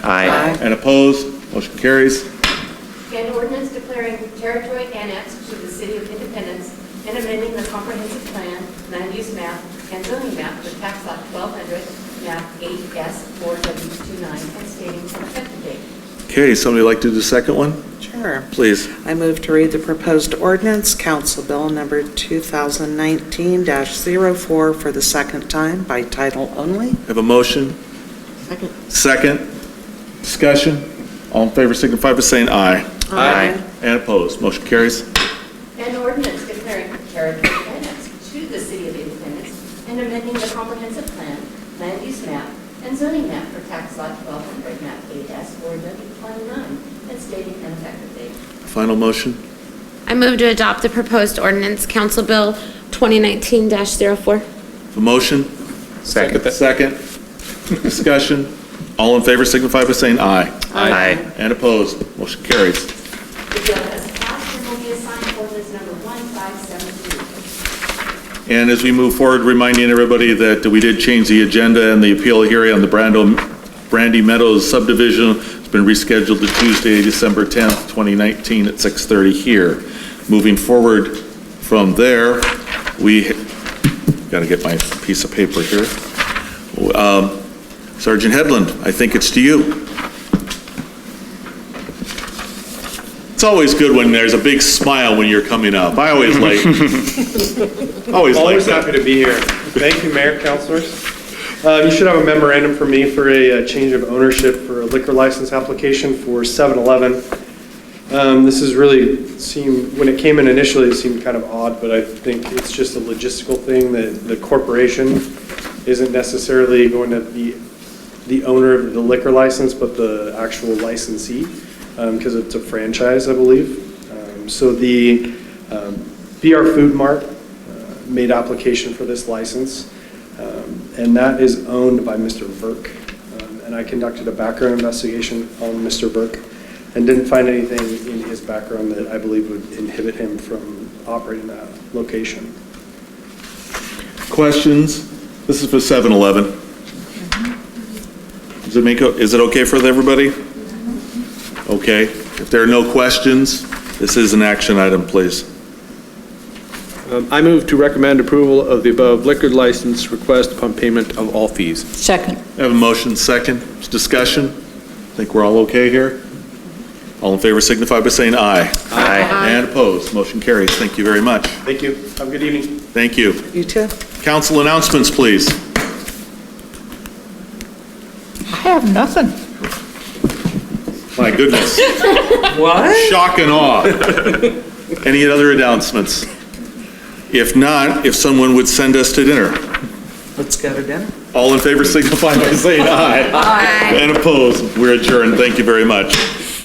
Aye. And opposed? Motion carries. An ordinance declaring territory annexed to the city of Independence and amending the comprehensive plan, land use map, and zoning map for tax lot 1200, map 8S4W29, and stating an effective date. Okay, somebody like to do the second one? Sure. Please. I move to read the proposed ordinance, Council Bill Number 2019-04, for the second time by title only. Have a motion? Second. Second? Discussion? All in favor signify by saying aye. Aye. And opposed? Motion carries. An ordinance declaring territory annexed to the city of Independence and amending the comprehensive plan, land use map, and zoning map for tax lot 1200, map 8S4W29, and stating an effective date. Final motion? I move to adopt the proposed ordinance, Council Bill 2019-04. A motion? Second. Second? Discussion? All in favor signify by saying aye. Aye. And opposed? Motion carries. The bill has passed and will be assigned ordinance number 1572. And as we move forward, reminding everybody that we did change the agenda and the appeal hearing on the Brando, Brandy Meadows subdivision has been rescheduled to Tuesday, December 10th, 2019 at 6:30 here. Moving forward from there, we, gotta get my piece of paper here. Um, Sergeant Headland, I think it's to you. It's always good when there's a big smile when you're coming up. I always like, always like Always that. happy to be here. Thank you, Mayor, councilors. Um, You should have a memorandum for me for a uh, change of ownership for a liquor license application for 7-Eleven. Um, This is really seemed, when it came in initially, it seemed kind of odd, but I think it's just a logistical thing that the corporation isn't necessarily going to be the owner of the liquor license, but the actual licensee, because it's a franchise, I believe. Um, So the um, BR Food Mart uh, made application for this license, um, and that is owned by Mr. Burke. Um, And I conducted a background investigation on Mr. Burke and didn't find anything in his background that I believe would inhibit him from operating that location. Questions? This is for 7-Eleven. Does it make, o- is it okay for everybody? Okay. If there are no questions, this is an action item, please. Um, I move to recommend approval of the above liquor license request upon payment of all fees. Second. I have a motion, second, discussion. Think we're all okay here? All in favor signify by saying aye. Aye. And opposed, motion carries. Thank you very much. Thank you. Have a good evening. Thank you. You too? Council announcements, please. I have nothing. My goodness, What? shock and awe. Any other announcements? If not, if someone would send us to dinner. Let's go to dinner. All in favor signify by saying aye. Aye. And opposed, we're adjourned. Thank you very much.